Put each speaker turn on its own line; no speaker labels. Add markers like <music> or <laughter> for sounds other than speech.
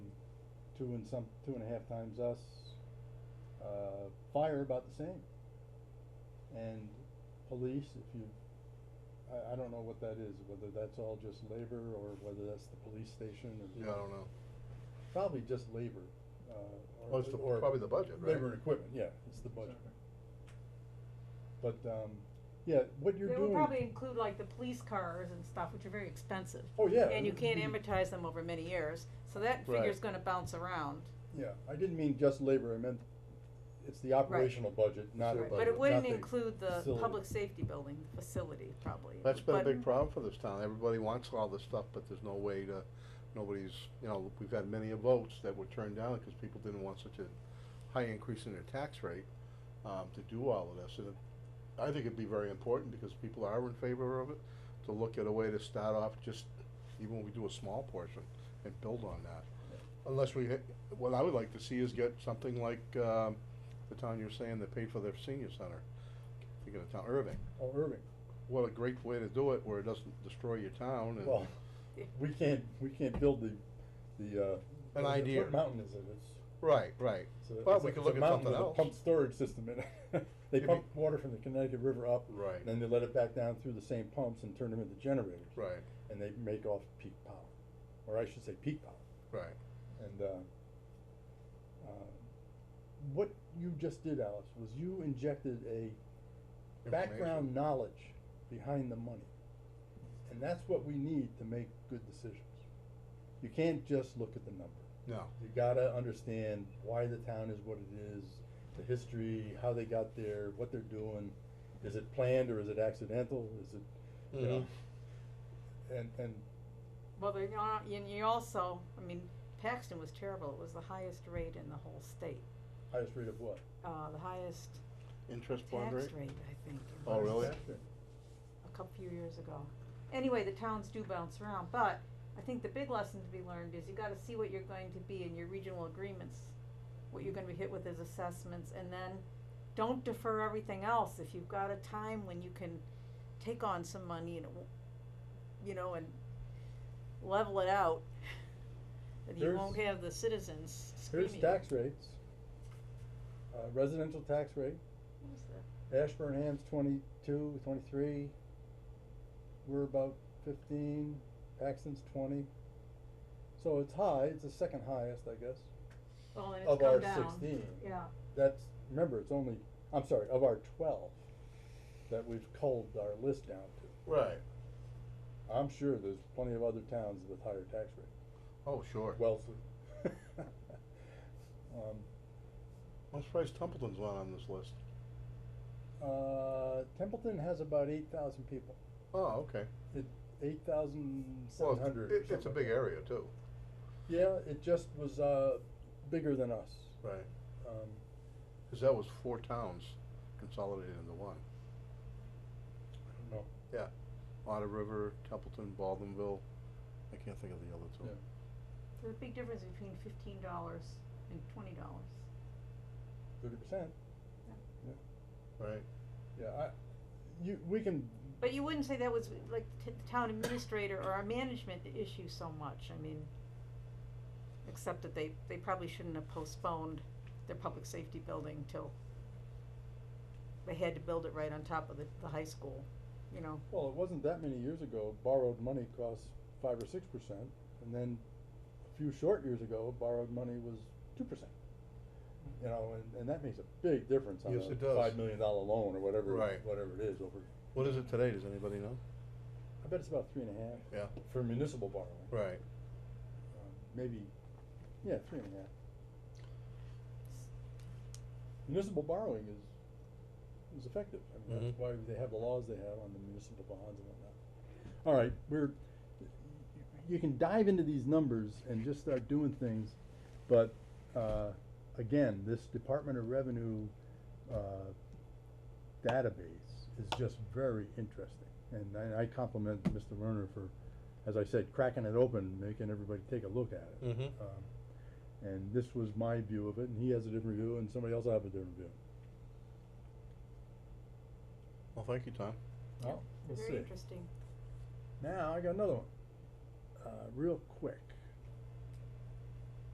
two and some, two and a half times us. Uh, fire about the same. And police, if you, I, I don't know what that is, whether that's all just labor or whether that's the police station or.
Yeah, I don't know.
Probably just labor, uh, or.
Well, Oh, it's the-
or
probably the budget, right?
Labor and equipment, yeah, it's the budget.
Exactly.
But, um, yeah, what you're
They
doing.
would probably include like the police cars and stuff, which are very expensive.
Oh, yeah.
And you can't
Mhm.
amortize them over many years, so that
Right.
figure's gonna bounce around.
Yeah, I didn't mean just labor, I meant it's the operational budget, not, not
their
Right,
the.
But
budget,
it wouldn't include the
facility.
public safety building, the facility, probably.
That's been a
But-
big problem for this town. Everybody wants all this stuff, but there's no way to, nobody's, you know, we've had many of votes that were turned down because people didn't want such a high increase in their tax rate, um, to do all of this. And it- I think it'd be very important because people are in favor of it, to look at a way to start off just, even when we do a small portion, and build on that. Unless we, hit- what I would like to see is get something like, um, the town you're saying that paid for their senior center. Thinking of town, Irving
Oh, Irving,
what a great way to do it where it doesn't destroy your town and
well, we can't, we can't build the, the, uh.
An
what-
idea.
What mountain is it? It's,
right right
it's a.
Well,
it's
we
a-
could
it's
look
a
at
mountain
something
with a
else.
Pump storage system in it. <laughs> They
Maybe-
pump water from the Connecticut River up.
Right.
And then they let it back down through the same pumps and turn them into generators.
right
And they make off peak power, or I should say peak power.
right
And uh, uh, what you just did, Alice, was you injected a background
Information.
knowledge behind the money. And that's what we need to make good decisions. You can't just look at the number.
no
You gotta understand why the town is what it is, the history, how they got there, what they're doing. Is it planned or is it accidental? Is it, you know?
Mm-hmm.
And, and
Well, they're not, and you also, I mean, Paxton was terrible, it was the highest rate in the whole state,
highest rate of what?
uh, the highest
interest bond rate
tax rate, I think. it
Oh,
was.
really?
a couple few years ago. Anyway, the towns do bounce around, but I think the big lesson to be learned is you gotta see what you're going to be in your regional agreements, what you're gonna be hit with as assessments, and then don't defer everything else. If you've got a time when you can take on some money and, it w- you know, and level it out, then you
There's-
won't have the citizens
Here's
screaming.
tax rates. Uh, residential tax rate,
What was that?
Ashburnham's twenty-two, twenty-three. We're about fifteen, Paxton's twenty. So it's high, it's the second highest, I guess.
Oh, and
Of
it's come
our
down.
16.
Yeah,
That's, remember, it's only, I'm sorry, of our twelve that we've culled our list down to.
right
I'm sure there's plenty of other towns with higher tax rates.
oh sure
Wellesley. <laughs> Um,
i'm surprised templeton's not on this list
uh, Templeton has about eight thousand people.
oh okay
It, eight thousand seven
well it's-
hundred.
it, it's a big area too
Yeah, it just was, uh, bigger than us.
right
Um,
because that was four towns consolidated into one
I don't
Oh,
know.
otter river templeton baldwinville i can't think of the other two
Yeah.
there's a big difference between fifteen dollars and twenty dollars.
Thirty percent.
right
Yeah, I, you, we can,
But you wouldn't say that was like t- the town administrator or our management issue so much, I mean, except that they, they probably shouldn't have postponed their public safety building till they had to build it right on top of the, the high school, you know,
well, it wasn't that many years ago, borrowed money cost five or six percent, and then a few short years ago, borrowed money was two percent. You know, and, and that makes a big difference on
Yes,
a
it does.
five million dollar loan or whatever,
Right.
whatever it is over,
what is it today does anybody know
I bet it's about three and a half.
Yeah.
For municipal borrowing.
right
Um, maybe, yeah, three and a half. Municipal borrowing is, is effective, I mean, that's
Mhm.
why they have the laws they have on the municipal bonds and whatnot. All right, we're, you can dive into these numbers and just start doing things, but, uh, again, this Department of Revenue, uh, database is just very interesting. And I, I compliment Mr. Werner for, as I said, cracking it open, making everybody take a look at it.
mm-hmm
Um, And this was my view of it, and he has a different view, and somebody else will have a different view.
well thank you tom
Well, we'll
very
see.
interesting.
Now, I got another one, uh, real quick.